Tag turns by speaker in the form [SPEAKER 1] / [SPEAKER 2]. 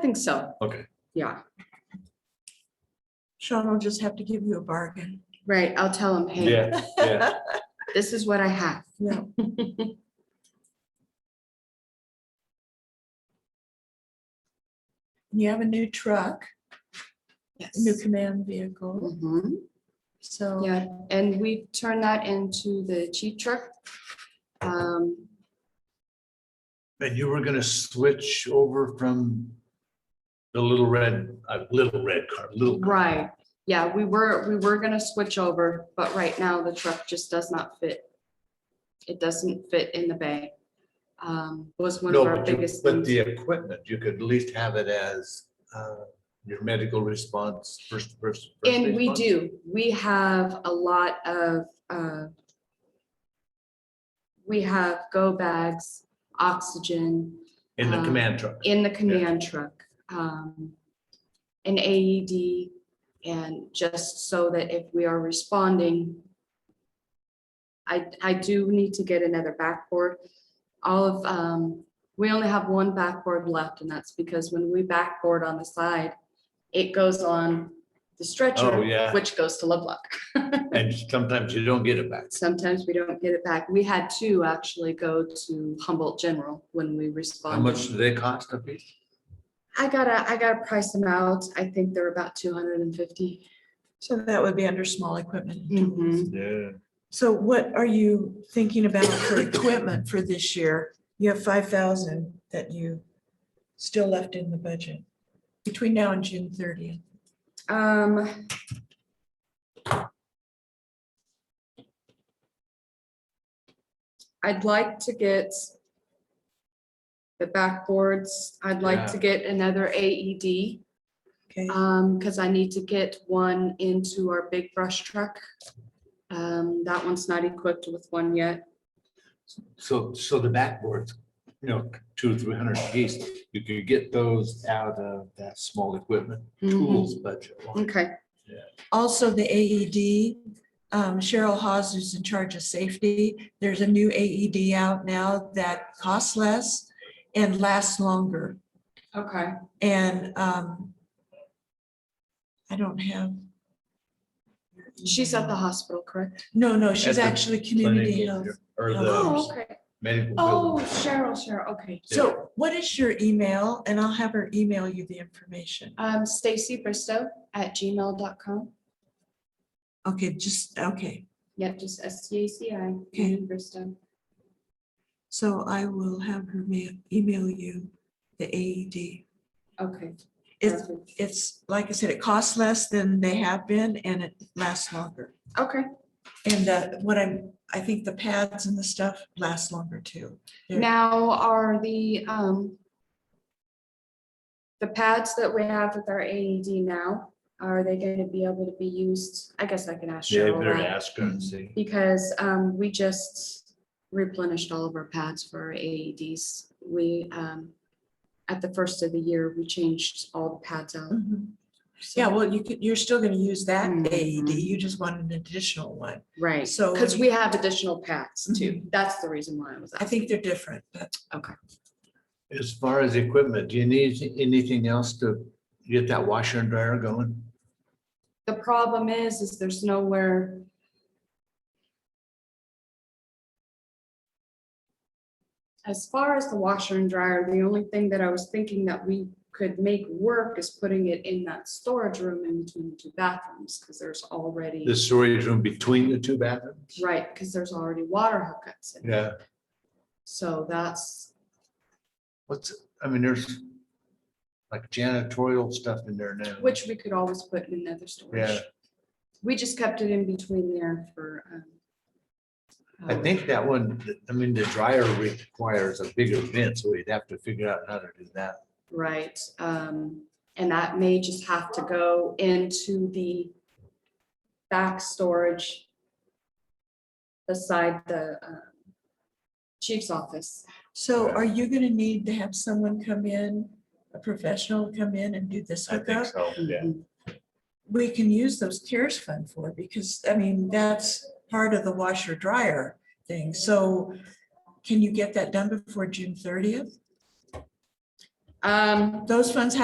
[SPEAKER 1] think so.
[SPEAKER 2] Okay.
[SPEAKER 1] Yeah,
[SPEAKER 3] Sean will just have to give you a bargain.
[SPEAKER 1] right. I'll tell him, hey,
[SPEAKER 2] Yeah, yeah.
[SPEAKER 1] this is what I have.
[SPEAKER 3] Yeah. You have a new truck,
[SPEAKER 1] Yes.
[SPEAKER 3] a new command vehicle,
[SPEAKER 1] Mhm,
[SPEAKER 3] so.
[SPEAKER 1] Yeah, and we turn that into the cheat truck. Um,
[SPEAKER 2] And you were gonna switch over from the little red, uh, little red car, little. car.
[SPEAKER 1] Right, yeah, we were, we were gonna switch over, but right now the truck just does not fit. It doesn't fit in the bay. Um, was one
[SPEAKER 2] No,
[SPEAKER 1] of our
[SPEAKER 2] but you,
[SPEAKER 1] biggest
[SPEAKER 2] but
[SPEAKER 1] things.
[SPEAKER 2] the equipment, you could at least have it as, uh, your medical response, first, first. first
[SPEAKER 1] And we
[SPEAKER 2] response.
[SPEAKER 1] do, we have a lot of, uh, we have go bags, oxygen
[SPEAKER 2] In the
[SPEAKER 1] um,
[SPEAKER 2] command truck.
[SPEAKER 1] in the command truck. um, An AED and just so that if we are responding. I, I do need to get another backboard. All of, um, we only have one backboard left and that's because when we backboard on the side, it goes on the
[SPEAKER 2] Oh,
[SPEAKER 1] stretcher,
[SPEAKER 2] yeah.
[SPEAKER 1] which goes to Lovelock.
[SPEAKER 2] And sometimes you don't get it back.
[SPEAKER 1] Sometimes we don't get it back. We had two actually go to Humboldt General when we
[SPEAKER 2] How
[SPEAKER 1] responded.
[SPEAKER 2] much do they cost a piece?
[SPEAKER 1] I gotta, I gotta price them out. I think they're about two hundred and fifty.
[SPEAKER 3] So that would be under small equipment. and tools.
[SPEAKER 2] Mm-hmm.
[SPEAKER 1] Mhm.
[SPEAKER 2] Yeah.
[SPEAKER 3] So what are you thinking about for equipment for this year? You have five thousand that you still left in the budget between now and June thirtieth.
[SPEAKER 1] Um. I'd like to get the backboards. I'd like to get another AED,
[SPEAKER 3] Okay,
[SPEAKER 1] um, because I need to get one into our big brush truck. Um, that one's not equipped with one yet.
[SPEAKER 2] So, so the backboards, you know, two, or three hundred a piece, you could get those out of that small equipment
[SPEAKER 1] Mm-hmm.
[SPEAKER 2] tools budget. line.
[SPEAKER 1] Okay,
[SPEAKER 3] also the AED, um, Cheryl Hawes is in charge of safety. There's a new AED out now that costs less and lasts longer.
[SPEAKER 1] okay.
[SPEAKER 3] And, um, I don't have.
[SPEAKER 1] She's at the hospital, correct?
[SPEAKER 3] No, no, she's
[SPEAKER 2] the
[SPEAKER 3] actually community
[SPEAKER 2] Clinic
[SPEAKER 3] health.
[SPEAKER 2] Or
[SPEAKER 1] Oh,
[SPEAKER 2] the
[SPEAKER 1] okay.
[SPEAKER 2] medical.
[SPEAKER 1] Oh,
[SPEAKER 2] building.
[SPEAKER 1] Cheryl, Cheryl, okay.
[SPEAKER 3] So what is your email? And I'll have her email you the information.
[SPEAKER 1] Um, Stacy Bristow at gmail.com.
[SPEAKER 3] Okay, just, okay.
[SPEAKER 1] Yep, just S T A C I,
[SPEAKER 3] Okay.
[SPEAKER 1] Bristow.
[SPEAKER 3] So I will have her ma- email you the AED.
[SPEAKER 1] Okay.
[SPEAKER 3] It's,
[SPEAKER 1] perfect.
[SPEAKER 3] it's, like I said, it costs less than they have been and it lasts longer.
[SPEAKER 1] Okay,
[SPEAKER 3] And uh, what I'm, I think the pads and the stuff last longer too. They're-
[SPEAKER 1] now are the, um, the pads that we have with our AED now, are they gonna be able to be used? I guess I can ask
[SPEAKER 2] Yeah,
[SPEAKER 1] Cheryl
[SPEAKER 2] better
[SPEAKER 1] that.
[SPEAKER 2] ask her and see.
[SPEAKER 1] Because, um, we just replenished all of our pads for our AEDs. We, um, at the first of the year, we changed all the pads out.
[SPEAKER 3] Mhm.
[SPEAKER 1] so-
[SPEAKER 3] Yeah, well, you could, you're still gonna use that
[SPEAKER 1] Mhm.
[SPEAKER 3] AED. You just want an additional one.
[SPEAKER 1] Right,
[SPEAKER 3] So-
[SPEAKER 1] because we have additional packs too.
[SPEAKER 3] Mhm.
[SPEAKER 1] That's the reason why Mm-hmm. I was
[SPEAKER 3] I
[SPEAKER 1] asking.
[SPEAKER 3] think they're different, but
[SPEAKER 2] As far as equipment, do you need anything else to get that washer and dryer going?
[SPEAKER 1] The problem is, is there's nowhere. As far as the washer and dryer, the only thing that I was thinking that we could make work is putting it in that storage room in between the two bathrooms, because there's already,
[SPEAKER 2] The storage room between the two bathrooms?
[SPEAKER 1] right, because there's already water hookups in. it.
[SPEAKER 2] Yeah,
[SPEAKER 1] So that's,
[SPEAKER 2] what's, I mean, there's like janitorial stuff in there now.
[SPEAKER 1] which we could always put in another storage.
[SPEAKER 2] Yeah.
[SPEAKER 1] We just kept it in between there for. um,
[SPEAKER 2] I
[SPEAKER 1] um,
[SPEAKER 2] think that one, I mean, the dryer requires a bigger vent, so we'd have to figure out how to do that.
[SPEAKER 1] Right, um, and that may just have to go into the back storage beside the um, chief's office.
[SPEAKER 3] So
[SPEAKER 2] Yeah.
[SPEAKER 3] are you gonna need to have someone come in, a professional come in and do this hookup?
[SPEAKER 2] so,
[SPEAKER 3] We can use those CARES fund for, it because, I mean, that's part of the washer dryer thing, so can you get that done before June thirtieth?
[SPEAKER 1] Um,
[SPEAKER 3] Those funds